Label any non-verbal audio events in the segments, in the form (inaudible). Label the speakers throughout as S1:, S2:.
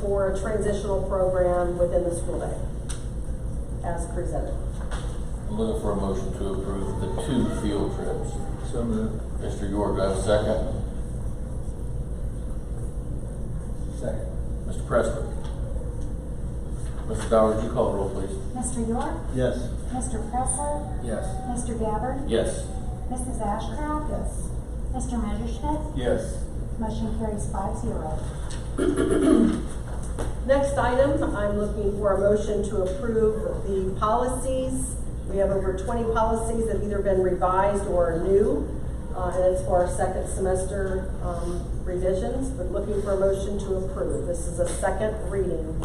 S1: for a transitional program within the school day, as presented.
S2: I'm looking for a motion to approve the two field trips.
S3: So moved.
S2: Mr. York, do I have a second?
S3: Second.
S2: Mr. Presley? Mr. Dowd, would you call the roll, please?
S4: Mr. York?
S3: Yes.
S4: Mr. Pressler?
S3: Yes.
S4: Mr. Gabbard?
S2: Yes.
S4: Mrs. Ashcraft?
S1: Yes.
S4: Mr. Messerschmidt?
S3: Yes.
S4: Motion carries five zero.
S1: Next item, I'm looking for a motion to approve the policies. We have over twenty policies that have either been revised or are new, uh, and it's for our second semester, um, revisions, but looking for a motion to approve. This is a second reading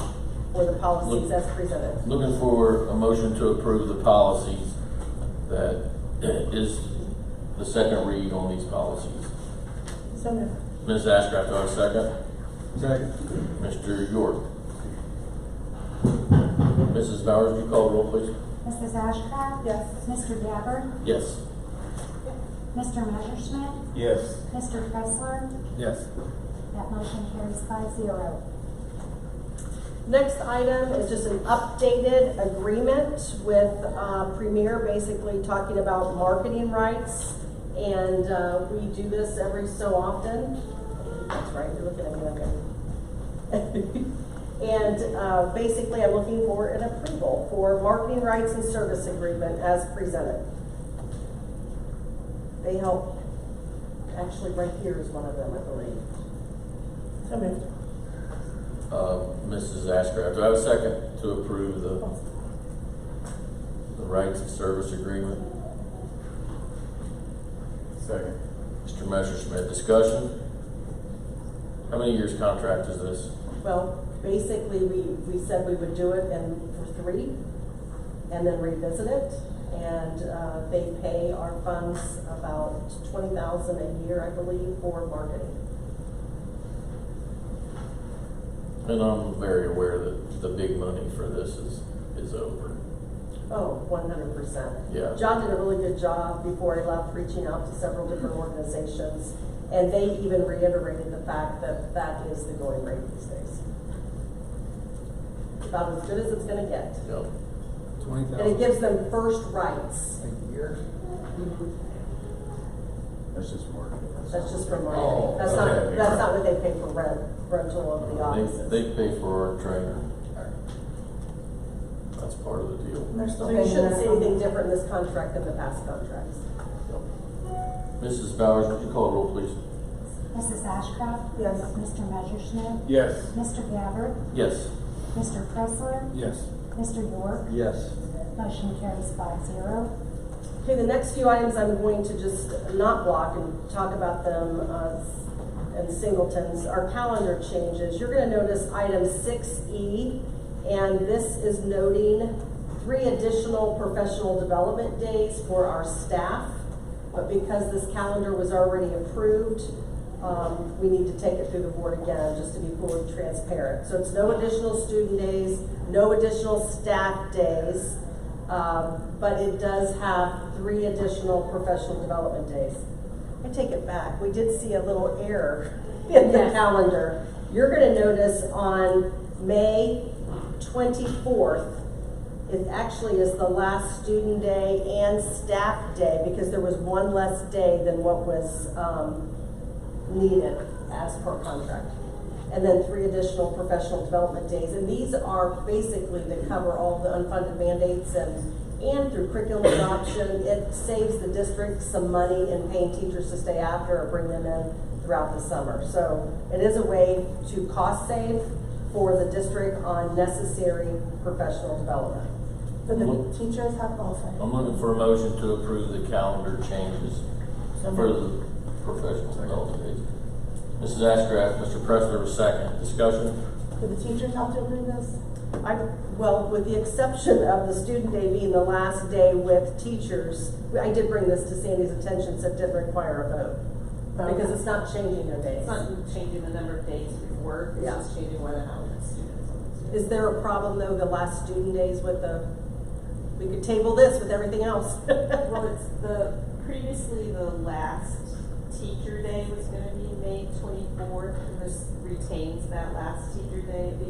S1: for the policies as presented.
S2: Looking for a motion to approve the policies that is the second read on these policies.
S1: So moved.
S2: Ms. Ashcraft, do I have a second?
S3: Second.
S2: Mr. York? Mrs. Bowers, would you call the roll, please?
S4: Mrs. Ashcraft?
S1: Yes.
S4: Mr. Gabbard?
S2: Yes.
S4: Mr. Messerschmidt?
S3: Yes.
S4: Mr. Pressler?
S3: Yes.
S4: That motion carries five zero.
S1: Next item is just an updated agreement with uh, Premier, basically talking about marketing rights. And uh, we do this every so often. That's right, you're looking at me okay. (laughs) And uh, basically, I'm looking for an approval for marketing rights and service agreement as presented. They help, actually, right here is one of them, I believe. So moved.
S2: Uh, Mrs. Ashcraft, do I have a second to approve the, the rights of service agreement?
S3: Second.
S2: Mr. Messerschmidt, discussion? How many years contract is this?
S1: Well, basically, we, we said we would do it and for three, and then revisit it. And, uh, they pay our funds about twenty thousand a year, I believe, for marketing.
S2: And I'm very aware that the big money for this is, is over.
S1: Oh, one hundred percent.
S2: Yeah.
S1: John did a really good job before he left, reaching out to several different organizations. And they even reiterated the fact that that is the going rate these days. About as good as it's gonna get.
S2: Yep.
S3: Twenty thousand.
S1: And it gives them first rights.
S3: A year? That's just more.
S1: That's just for marketing.
S2: Oh,
S1: That's not,
S2: okay.
S1: that's not what they pay for rent, rental of the offices.
S2: They, they pay for our trainer. That's part of the deal.
S1: So you shouldn't see anything different in this contract than the past contracts.
S2: Mrs. Bowers, would you call the roll, please?
S4: Mrs. Ashcraft?
S1: Yes.
S4: Mr. Messerschmidt?
S3: Yes.
S4: Mr. Gabbard?
S2: Yes.
S4: Mr. Pressler?
S3: Yes.
S4: Mr. York?
S3: Yes.
S4: Motion carries five zero.
S1: Okay, the next few items I'm going to just not block and talk about them, uh, and singletons, our calendar changes. You're gonna notice item six E, and this is noting three additional professional development days for our staff. But because this calendar was already approved, um, we need to take it through the board again, just to be fully transparent. So it's no additional student days, no additional staff days, um, but it does have three additional professional development days. I take it back, we did see a little error (laughs) in the calendar. You're gonna notice on May twenty-fourth, it actually is the last student day and staff day, because there was one less day than what was, um, needed as per contract. And then three additional professional development days, and these are basically to cover all the unfunded mandates and, and through curriculum adoption, it saves the district some money in paying teachers to stay after or bring them in throughout the summer. So it is a way to cost save for the district on necessary professional development.
S5: So the teachers oh, have all five.
S2: I'm looking for a motion to approve the calendar changes for the professional development days. Mrs. Ashcraft, Mr. Pressler, was second. Discussion?
S5: Do the teachers have to approve this?
S1: I, well, with the exception of the student day being the last day with teachers, I did bring this to Sandy's attention, so it didn't require a vote. Because it's not changing their days.
S6: It's not changing the number of days we work, it's
S1: Yeah.
S6: just changing where the hours students.
S1: Is there a problem though, the last student days with the, we could table this with everything else? (laughs)
S6: Well, it's the, previously the last teacher day was gonna be May twenty-fourth, and this retains that last teacher day. The